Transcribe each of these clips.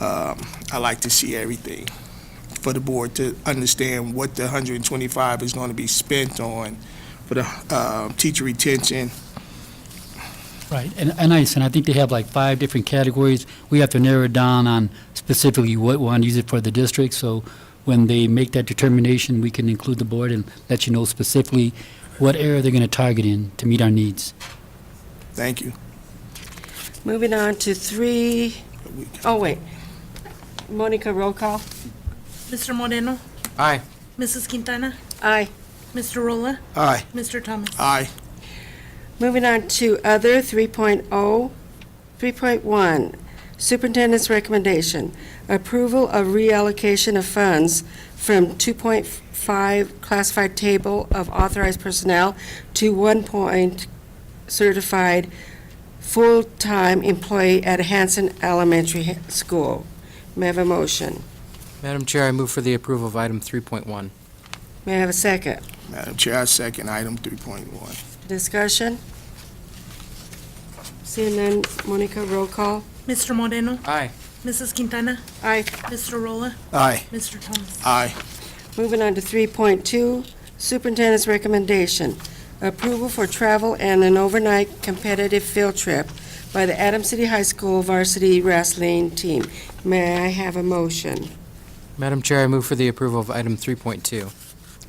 Um, I like to see everything for the board to understand what the 125 is going to be spent on for the um, teacher retention. Right, and, and I, and I think they have like five different categories. We have to narrow it down on specifically what we want to use it for the district, so when they make that determination, we can include the board and let you know specifically what area they're going to target in to meet our needs. Thank you. Moving on to three, oh, wait. Monica, roll call. Mr. Moreno? Aye. Mrs. Quintana? Aye. Mr. Rolla? Aye. Mr. Thomas? Aye. Moving on to other, oh, 3.0. 3.1, Superintendent's Recommendation, Approval of Reallocation of Funds from 2.5 Classified Table of Authorized Personnel to 1. point Certified Full-Time Employee at Hanson Elementary H- School. May I have a motion? Madam Chair, I move for the approval of item 3.1. May I have a second? Madam Chair, I second item 3.1. Discussion? Seeing none, Monica, roll call. Mr. Moreno? Aye. Mrs. Quintana? Aye. Mr. Rolla? Aye. Mr. Thomas? Aye. Moving on to 3.2, Superintendent's Recommendation, Approval for Travel and an Overnight Competitive Field Trip by the Adam City High School Varsity Wrestling Team. May I have a motion? Madam Chair, I move for the approval of item 3.2.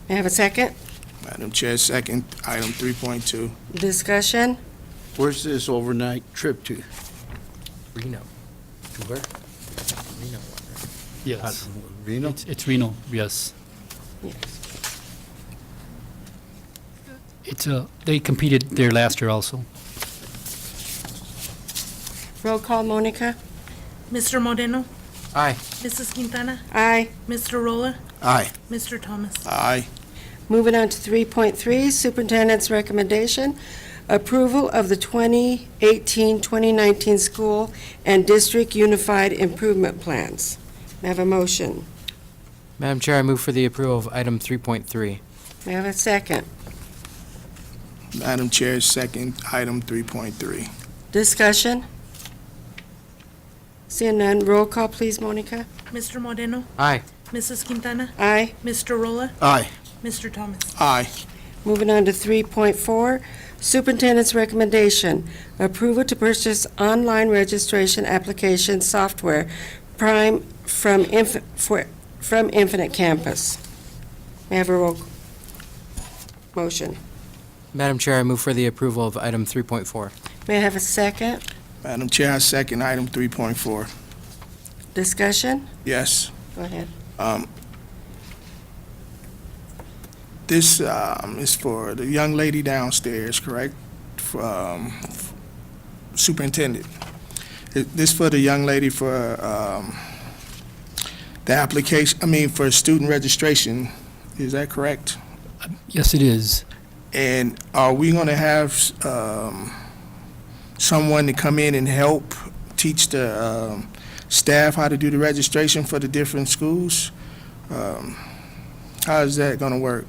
May I have a second? Madam Chair, second item 3.2. Discussion? Where's this overnight trip to? Reno. To where? Reno. Yes. Reno? It's it's Reno, yes. Yes. It's a, they competed there last year also. Roll call, Monica? Mr. Moreno? Aye. Mrs. Quintana? Aye. Mr. Rolla? Aye. Mr. Thomas? Aye. Moving on to 3.3, Superintendent's Recommendation, Approval of the 2018-2019 School and District Unified Improvement Plans. May I have a motion? Madam Chair, I move for the approval of item 3.3. May I have a second? Madam Chair, second item 3.3. Discussion? Seeing none, roll call, please, Monica. Mr. Moreno? Aye. Mrs. Quintana? Aye. Mr. Rolla? Aye. Mr. Thomas? Aye. Moving on to 3.4, Superintendent's Recommendation, Approval to purchase online registration application software Prime from Inf- for- from Infinite Campus. May I have a roll? Motion. Madam Chair, I move for the approval of item 3.4. May I have a second? Madam Chair, I second item 3.4. Discussion? Yes. Go ahead. Um, This um, is for the young lady downstairs, correct? From Superintendent. Is This for the young lady for um, the application, I mean, for student registration, is that correct? Yes, it is. And are we going to have um, someone to come in and help teach the um, staff how to do the registration for the different schools? Um, How is that going to work?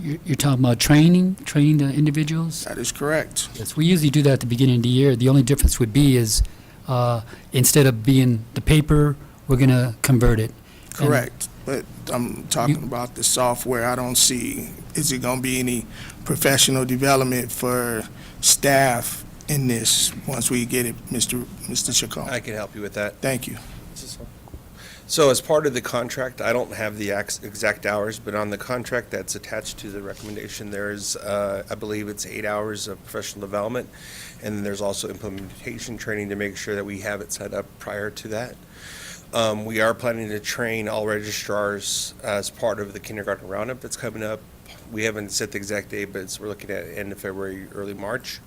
You're you're talking about training, training the individuals? That is correct. Yes, we usually do that at the beginning of the year. The only difference would be is, uh, instead of being the paper, we're going to convert it. And- Correct. But I'm talking about the software. I don't see, is it going to be any professional development for staff in this, once we get it, Mr. Mr. Chacon? I can help you with that. Thank you. So as part of the contract, I don't have the ex- exact hours, but on the contract that's attached to the recommendation, there is, uh, I believe it's eight hours of professional development. And then there's also implementation training to make sure that we have it set up prior to that. Um, We are planning to train all registrars as part of the kindergarten roundup that's coming up. We haven't set the exact date, but it's, we're looking at end of February, early March.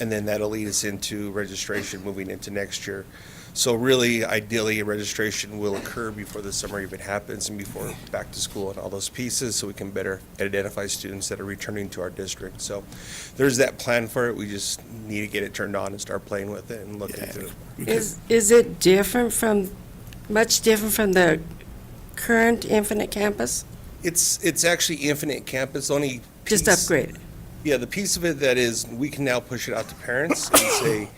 And then that'll lead us into registration moving into next year. So really, ideally, registration will occur before the summer even happens and before back to school and all those pieces, so we can better identify students that are returning to our district. So there's that plan for it. We just need to get it turned on and start playing with it and looking Yeah. through. Because- Is is it different from, much different from the current Infinite Campus? It's, it's actually Infinite Campus, only Just piece- upgraded? Yeah, the piece of it that is, we can now push it out to parents and say,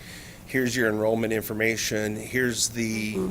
here's your enrollment information, here's the